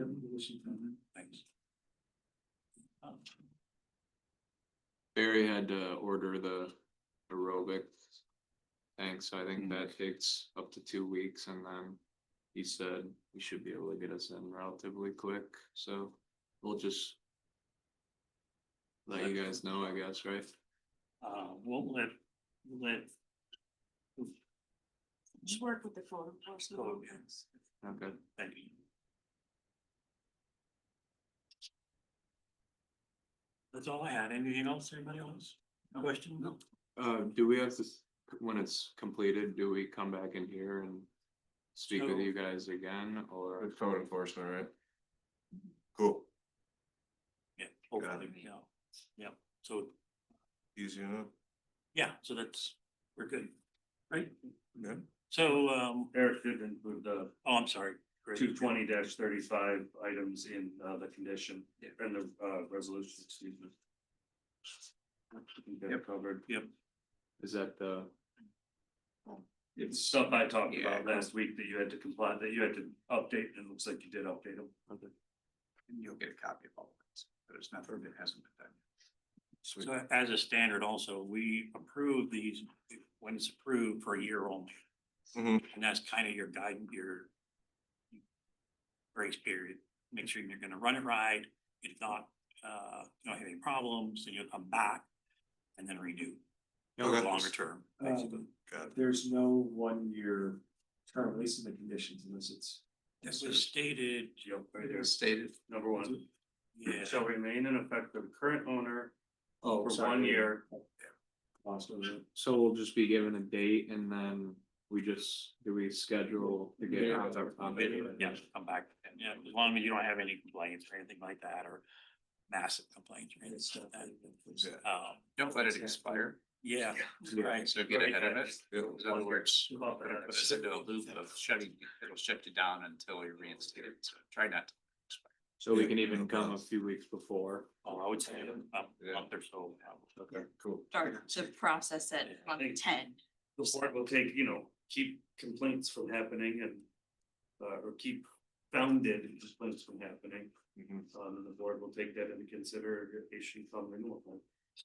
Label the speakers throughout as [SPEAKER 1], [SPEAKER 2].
[SPEAKER 1] Listen to them, thanks. Uh,
[SPEAKER 2] Barry had to order the aerobic thing, so I
[SPEAKER 3] Hmm.
[SPEAKER 2] think that takes up to two weeks and then he said we should be able to get us in relatively quick, so we'll just let you guys know, I guess, right?
[SPEAKER 1] Uh, we'll let, we'll let.
[SPEAKER 4] Just work with the code enforcement.
[SPEAKER 1] Code, Oh, yes.
[SPEAKER 2] Okay.
[SPEAKER 1] Thank you. That's all I had. Anything else, anybody else? Question? No.
[SPEAKER 2] Uh, do we have to, s- when it's completed, do we come back in here and speak with
[SPEAKER 1] So-
[SPEAKER 2] you guys again or?
[SPEAKER 3] With code enforcement, right? Cool,
[SPEAKER 1] Yeah,
[SPEAKER 3] it.
[SPEAKER 1] hopefully, yeah, yeah, so,
[SPEAKER 3] easy enough.
[SPEAKER 1] yeah, so that's, we're good, right?
[SPEAKER 3] Good.
[SPEAKER 1] So, um,
[SPEAKER 5] Eric did include the
[SPEAKER 1] oh, I'm sorry. Greg.
[SPEAKER 5] two twenty thirty-five items in uh the condition and the uh resolution, excuse me. I think that
[SPEAKER 2] Yep.
[SPEAKER 5] covered.
[SPEAKER 1] Yep,
[SPEAKER 2] Is that the,
[SPEAKER 5] It's stuff I talked about
[SPEAKER 2] Yeah.
[SPEAKER 5] last week that you had to comply, that you had to
[SPEAKER 1] Oh,
[SPEAKER 5] update, and it looks like you did update them.
[SPEAKER 6] And you'll get a copy of all of this, but it's not, it hasn't been done.
[SPEAKER 3] Sweet.
[SPEAKER 1] so as a standard also, we approve these when it's approved for a year only.
[SPEAKER 3] Mhm.
[SPEAKER 1] And that's kind of your guide, your grace period. Make sure you're gonna run it right. If not, uh, you don't have any problems, then you'll come back and then redo
[SPEAKER 3] Okay.
[SPEAKER 1] longer term,
[SPEAKER 6] Um,
[SPEAKER 1] basically.
[SPEAKER 3] Got it.
[SPEAKER 6] There's no one-year term, at least in the conditions, unless it's.
[SPEAKER 1] It was stated,
[SPEAKER 5] Yep, right there,
[SPEAKER 6] Stated.
[SPEAKER 5] number one,
[SPEAKER 1] yeah.
[SPEAKER 5] shall remain in effect for the current owner
[SPEAKER 6] Oh,
[SPEAKER 5] for
[SPEAKER 6] sorry.
[SPEAKER 5] one year.
[SPEAKER 6] Lost over it.
[SPEAKER 2] so we'll just be given a date and then we just, do we schedule to get
[SPEAKER 6] Yeah.
[SPEAKER 2] on the, on the?
[SPEAKER 1] Um, Yeah, come back, yeah, as long as you don't have any complaints or anything like that, or massive complaints or anything like
[SPEAKER 3] Yeah.
[SPEAKER 1] that. Um,
[SPEAKER 6] Don't let it expire,
[SPEAKER 1] yeah, right,
[SPEAKER 6] so
[SPEAKER 5] get ahead of it.
[SPEAKER 3] Yeah.
[SPEAKER 6] In other words,
[SPEAKER 5] About that.
[SPEAKER 6] put us into a loop of shutting, it'll shut you down until you reinstate it, so try not to.
[SPEAKER 2] So we can even come a few weeks before.
[SPEAKER 1] oh, I would say a a month or so.
[SPEAKER 3] Okay, cool.
[SPEAKER 7] start to process it
[SPEAKER 1] Yeah, I
[SPEAKER 7] on
[SPEAKER 5] think-
[SPEAKER 7] ten.
[SPEAKER 5] The board will take, you know, keep complaints from happening and, uh, or keep founded complaints from happening.
[SPEAKER 3] Mhm.
[SPEAKER 6] Mm-hmm.
[SPEAKER 5] Um, and the board will take that into consideration from renewal.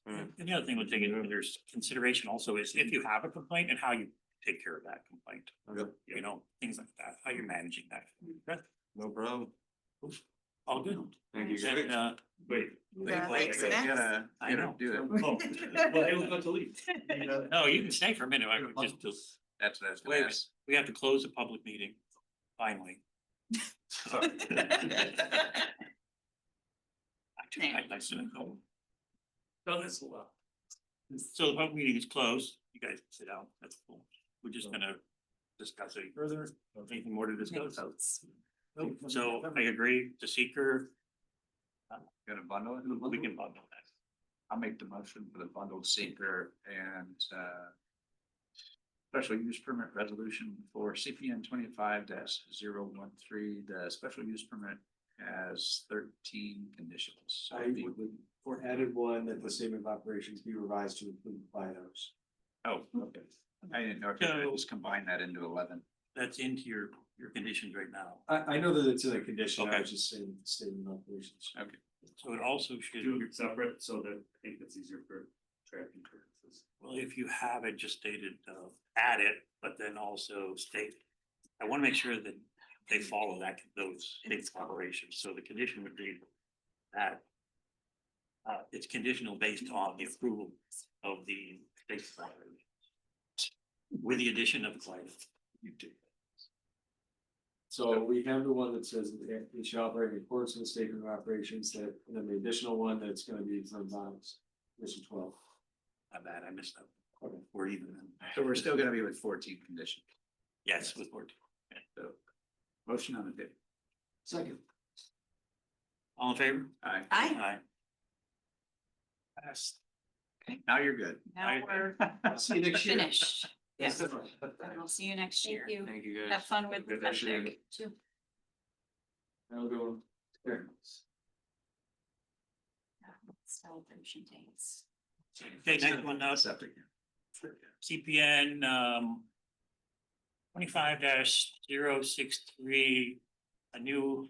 [SPEAKER 5] plan.
[SPEAKER 1] And the other thing we'll take into there's consideration also is if you have a complaint and how you take care of that complaint.
[SPEAKER 3] Yep.
[SPEAKER 1] You know, things like that, how you're managing that. That's
[SPEAKER 3] No problem.
[SPEAKER 1] All good.
[SPEAKER 2] Thank you. guys.
[SPEAKER 1] And, uh,
[SPEAKER 5] Wait.
[SPEAKER 7] Thanks, Max.
[SPEAKER 1] I know.
[SPEAKER 6] do it.
[SPEAKER 5] Oh, well, it was about to leave. You know,
[SPEAKER 1] No, you can stay for a minute, I would just, just-
[SPEAKER 6] That's what I
[SPEAKER 1] Wait
[SPEAKER 6] was
[SPEAKER 1] a
[SPEAKER 6] gonna
[SPEAKER 1] minute.
[SPEAKER 6] ask.
[SPEAKER 1] we have to close the public meeting, finally.
[SPEAKER 5] sorry.
[SPEAKER 1] I do, I'd like to know. No, that's a lot. So the public meeting is closed. You guys can sit down. That's cool. We're just gonna discuss any further. Anything more to discuss? So I agree, the seeker,
[SPEAKER 6] Gonna bundle it?
[SPEAKER 1] we can bundle that.
[SPEAKER 6] I'll make the motion for the bundled seeker and uh. Special use permit resolution for CPN twenty-five 13 the special use permit has thirteen conditions.
[SPEAKER 8] I would, or added one that the statement of operations be revised to include bios.
[SPEAKER 6] Oh, okay. I didn't know if you could just combine that into eleven.
[SPEAKER 1] That's into your, your conditions right now.
[SPEAKER 8] I, I know that it's in a condition, I
[SPEAKER 1] Okay.
[SPEAKER 8] was just saying statement of operations.
[SPEAKER 1] So it also should,
[SPEAKER 5] Do it separate so that I think it's easier for tracking purposes.
[SPEAKER 1] well, if you have it just stated, uh, add it, but then also state. I wanna make sure that they follow that, those states of operations. So the condition would be that. Uh, it's conditional based on the approval of the state's operations. With the addition of clients.
[SPEAKER 8] So we have the one that says that it- it shall operate in accordance with the statement of operations that, and then the additional one that's gonna be from bios, mission twelve.
[SPEAKER 1] My bad, I missed that. Or even then.
[SPEAKER 6] So we're still gonna be with fourteen conditions.
[SPEAKER 1] Yes, with board.
[SPEAKER 6] So uh, motion on the table.
[SPEAKER 8] Second.
[SPEAKER 1] All in favor?
[SPEAKER 6] Aye.
[SPEAKER 7] I,
[SPEAKER 6] Passed. Now you're good.
[SPEAKER 7] now we're
[SPEAKER 8] See you next year.
[SPEAKER 7] finished. Yes, and we'll see you next year.
[SPEAKER 2] Thank you guys.
[SPEAKER 7] Have fun with the
[SPEAKER 2] Good to see you.
[SPEAKER 7] septic too.
[SPEAKER 8] That'll go. There.
[SPEAKER 7] Celebration days.
[SPEAKER 1] Okay, next one, uh,
[SPEAKER 6] Septic.
[SPEAKER 1] CPN, um. Twenty-five 63 a new